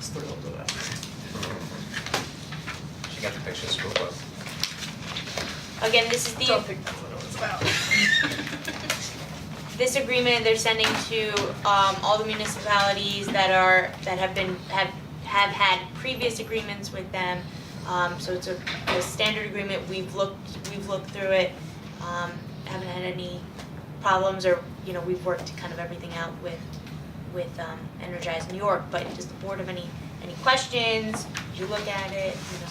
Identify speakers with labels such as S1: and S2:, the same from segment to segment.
S1: thrilled with that.
S2: She got the picture of the school bus.
S3: Again, this is
S1: Don't
S3: the,
S1: think that's what it was about.
S3: this agreement they're sending to um all the municipalities that are, that have been, have have had previous agreements with them. Um so it's a, a standard agreement, we've looked, we've looked through it, um haven't had any problems or, you know, we've worked kind of everything out with with um Energize New York, but does the board have any, any questions? Did you look at it, you know?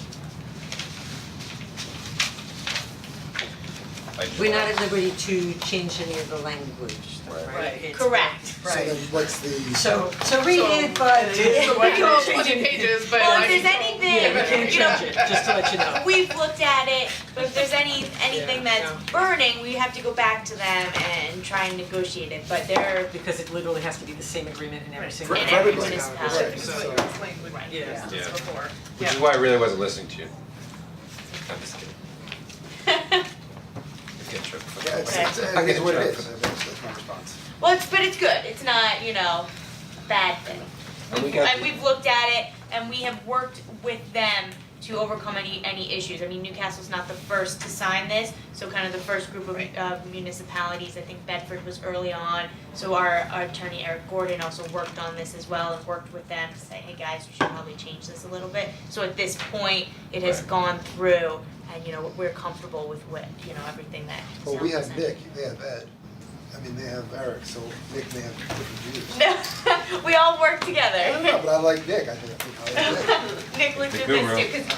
S2: I just-
S4: We're not at liberty to change any of the language, though,
S2: Right.
S4: right?
S1: Right.
S5: It's-
S3: Correct.
S6: So
S5: Right.
S6: then what's the?
S4: So, so read it, but.
S1: So, it is the one that changing pages, but
S3: Well,
S1: like-
S3: if there's anything,
S4: Yeah, we
S3: you
S4: can't
S3: know,
S4: change it, just to let you know.
S3: We've looked at it, but if there's any, anything
S4: Yeah,
S3: that's burning, we have to go back to them and try and negotiate it, but they're,
S4: Because it literally has to be the same agreement in every single.
S1: In
S3: every municipality.
S1: It's
S4: So-
S1: like this language
S3: Right.
S1: we used
S2: Yeah.
S1: before.
S2: Which is why I really wasn't listening to you. I'm just kidding. You get tripped.
S6: Yeah, it's,
S3: Right.
S6: it's,
S2: I
S6: it's
S2: get
S6: what it
S2: tripped.
S6: is, I mean, that's that's my response.
S3: well, it's, but it's good, it's not, you know, a bad thing.
S2: And we got
S3: And
S2: the-
S3: we've looked at it and we have worked with them to overcome any, any issues. I mean, Newcastle's not the first to sign this, so kind of the first group of of municipalities, I think Bedford was early on. So our, our attorney Eric Gordon also worked on this as well and worked with them to say, hey guys, you should probably change this a little bit. So at this point, it has
S2: Right.
S3: gone through and, you know, we're comfortable with what, you know, everything that
S6: Well, we
S3: sounds
S6: have Nick, they have Ed, I mean, they have Eric, so Nick may have different views.
S3: No, we all work together.
S6: I don't know, but I like Nick, I think, I think I like Nick.
S3: Nick looked
S2: The
S3: at this
S2: guru.
S3: too,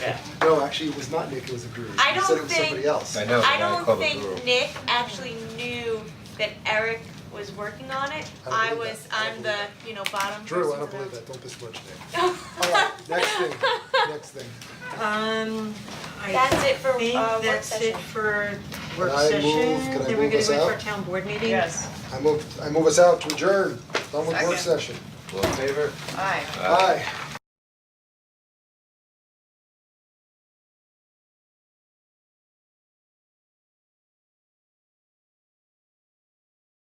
S3: 'cause
S6: No, actually, it was not Nick, it was a guru, he
S3: I don't
S6: said it was
S3: think-
S6: somebody else.
S2: I know, but
S3: I
S2: now I call
S3: don't
S2: the
S3: think Nick actually knew that Eric was working on it. I
S6: I don't believe
S3: was,
S6: that. I don't
S3: I'm the,
S6: believe
S3: you know, bottom person.
S6: Drew, I don't
S3: to
S6: believe
S3: know.
S6: that, don't besmirch Nick. Alright, next thing, next thing,
S4: Um, I
S3: That's it for, uh,
S4: think
S3: work
S4: that's
S3: session.
S4: it for work
S6: Can I
S4: session.
S6: move- can
S4: Then
S6: I move
S4: we're gonna
S6: us
S4: go into our
S6: out?
S4: town board meeting.
S5: Yes,
S6: I move, I move us out to adjourn, done with work
S5: Second.
S6: session,
S2: All in favor?
S5: aye.
S6: aye.